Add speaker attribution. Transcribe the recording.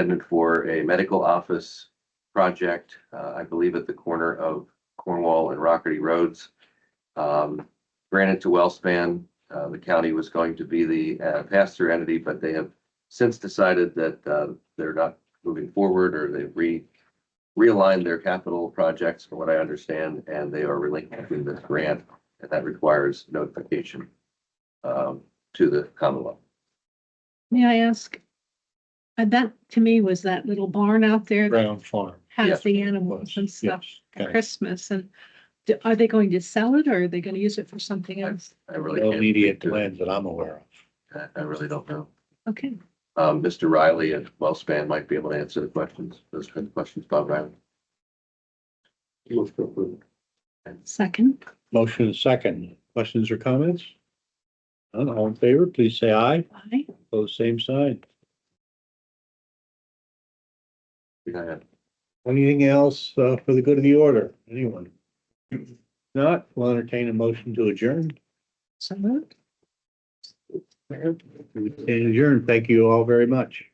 Speaker 1: intended for a medical office project, uh, I believe at the corner of Cornwall and Rockerty Roads. Um, granted to Wellspan, uh, the county was going to be the uh, pass-through entity, but they have since decided that, uh, they're not moving forward or they've re, realigned their capital projects from what I understand, and they are relinquishing this grant, and that requires notification, um, to the Commonwealth.
Speaker 2: May I ask? uh, That to me was that little barn out there that
Speaker 3: Brown Farm.
Speaker 1: Yes.
Speaker 2: has the animals and stuff
Speaker 3: Yes,
Speaker 2: at
Speaker 3: okay.
Speaker 2: Christmas and do- are they going to sell it or are they going to use it for something else?
Speaker 1: I really
Speaker 3: No
Speaker 1: can't.
Speaker 3: immediate
Speaker 1: speak to it.
Speaker 3: plans that I'm aware of.
Speaker 1: I, I really don't know.
Speaker 2: Okay,
Speaker 1: Um, Mr. Riley at Wellspan might be able to answer the questions, those kind of questions, Bob Riley.
Speaker 2: second,
Speaker 3: Motion is second. Questions or comments? None, all in favor, please say aye.
Speaker 2: aye.
Speaker 3: Pose same sign.
Speaker 1: Go ahead.
Speaker 3: Anything else uh, for the good of the order? Anyone? Not, we'll entertain a motion to adjourn.
Speaker 2: So moved.
Speaker 3: We stand adjourned. Thank you all very much.